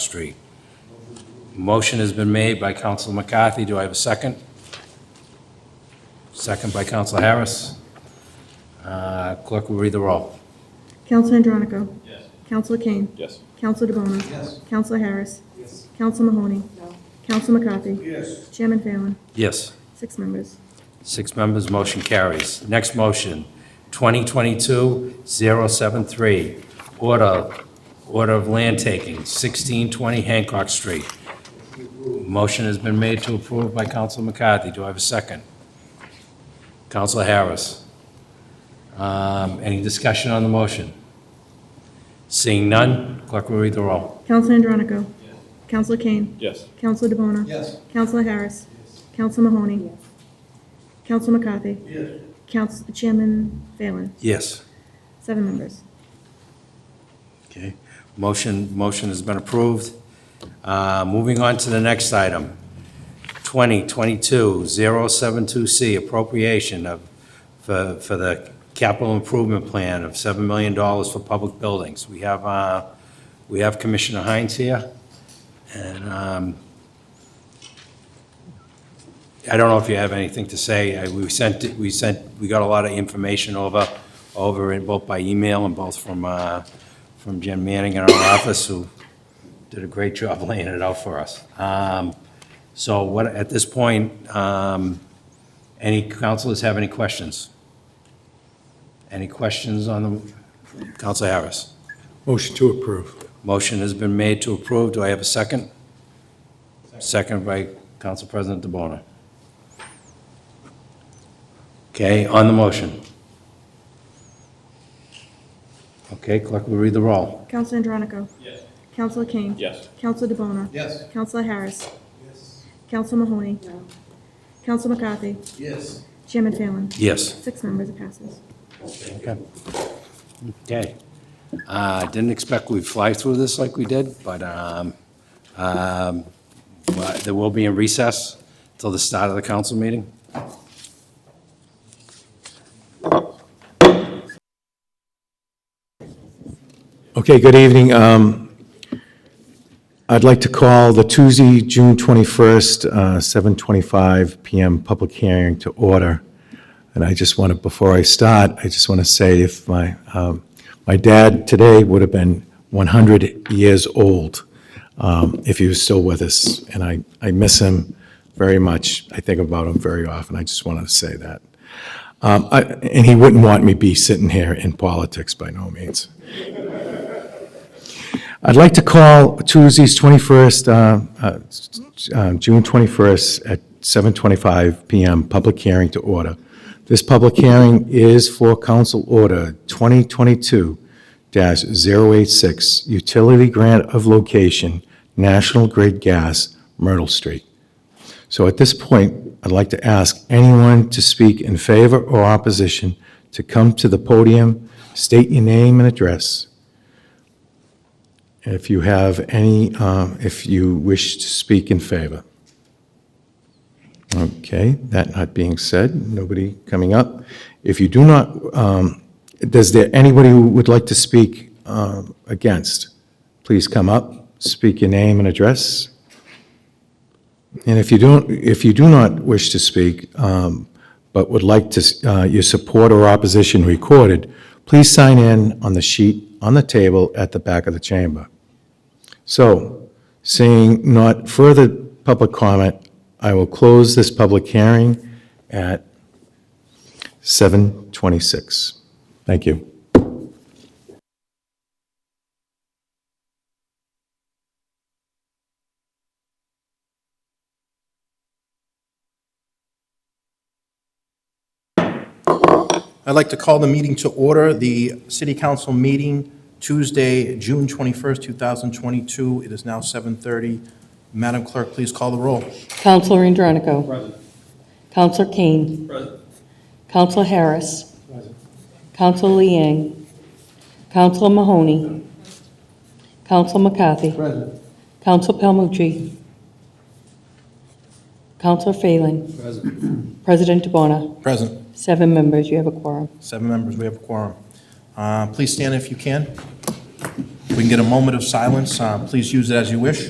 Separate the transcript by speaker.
Speaker 1: Street. Motion has been made by Counsel McCarthy. Do I have a second? Second by Counsel Harris. Uh, Clerk will read the roll.
Speaker 2: Counsel Andronico.
Speaker 3: Yes.
Speaker 2: Counsel Kane.
Speaker 3: Yes.
Speaker 2: Counsel DeBona.
Speaker 3: Yes.
Speaker 2: Counsel Harris.
Speaker 3: Yes.
Speaker 2: Counsel Mahoney. No. Counsel McCarthy.
Speaker 3: Yes.
Speaker 2: Chairman Phelan.
Speaker 1: Yes,
Speaker 2: Six members.
Speaker 1: six members, motion carries. Next motion, 2022-073, order, order of land taking, 1620 Hancock Street. Motion has been made to approve by Counsel McCarthy. Do I have a second? Counsel Harris. Um, Any discussion on the motion? Seeing none, clerk will read the roll.
Speaker 2: Counsel Andronico. Yes. Counsel Kane.
Speaker 3: Yes.
Speaker 2: Counsel DeBona.
Speaker 3: Yes.
Speaker 2: Counsel Harris. Counsel Mahoney. Counsel McCarthy.
Speaker 3: Yes.
Speaker 2: Counsel, Chairman Phelan.
Speaker 1: Yes.
Speaker 2: Seven members.
Speaker 1: Okay, motion, motion has been approved. Uh, Moving on to the next item, 2022-072C, appropriation of, for, for the capital improvement plan of $7 million for public buildings. We have, uh, we have Commissioner Hines here, and um, I don't know if you have anything to say. I- We sent, it- we sent, we got a lot of information over, over it, both by email and both from, uh, from Jen Manning in our office, who did a great job laying it out for us. Um, So what, at this point, um, any councilors have any questions? Any questions on the, Council Harris?
Speaker 4: Motion to approve.
Speaker 1: Motion has been made to approve. Do I have a second? Second by Council President DeBona. Okay, on the motion. Okay, clerk will read the roll.
Speaker 2: Counsel Andronico.
Speaker 3: Yes.
Speaker 2: Counsel Kane.
Speaker 3: Yes.
Speaker 2: Counsel DeBona.
Speaker 3: Yes.
Speaker 2: Counsel Harris.
Speaker 3: Yes.
Speaker 2: Counsel Mahoney. No. Counsel McCarthy.
Speaker 3: Yes.
Speaker 2: Chairman Phelan.
Speaker 1: Yes.
Speaker 2: Six members, it passes.
Speaker 1: Okay. Okay. Uh, Didn't expect we'd fly through this like we did, but um, um, but there will be a recess till the start of the council meeting.
Speaker 4: Okay, good evening. Um, I'd like to call the Tuesday, June 21st, uh, 7:25 PM public hearing to order. And I just want to, before I start, I just want to say if my, um, my dad today would have been 100 years old um, if he was still with us, and I, I miss him very much. I think about him very often. I just want to say that. Um, I- And he wouldn't want me be sitting here in politics by no means. I'd like to call Tuesday's 21st, uh, uh, uh, June 21st at 7:25 PM, public hearing to order. This public hearing is for Council Order 2022-086, Utility Grant of Location, National Grid Gas, Myrtle Street. So at this point, I'd like to ask anyone to speak in favor or opposition to come to the podium, state your name and address. If you have any, um, if you wish to speak in favor. Okay, that not being said, nobody coming up. If you do not, um, does there, anybody who would like to speak um, against? Please come up, speak your name and address. And if you don't, if you do not wish to speak, um, but would like to, uh, your support or opposition recorded, please sign in on the sheet on the table at the back of the chamber. So, seeing not further public comment, I will close this public hearing at 7:26. Thank you.
Speaker 5: I'd like to call the meeting to order, the city council meeting Tuesday, June 21st, 2022. It is now 7:30. Madam Clerk, please call the roll.
Speaker 6: Counselor Andronico.
Speaker 3: Present.
Speaker 6: Counselor Kane.
Speaker 3: Present.
Speaker 6: Counselor Harris. Counselor Liang. Counselor Mahoney. Counselor McCarthy.
Speaker 3: Present.
Speaker 6: Counselor Palmucci. Counselor Phelan.
Speaker 3: Present.
Speaker 6: President Dubana.
Speaker 5: Present.
Speaker 6: Seven members, you have a quorum.
Speaker 5: Seven members, we have a quorum. Uh, Please stand if you can. If we can get a moment of silence, uh, please use it as you wish.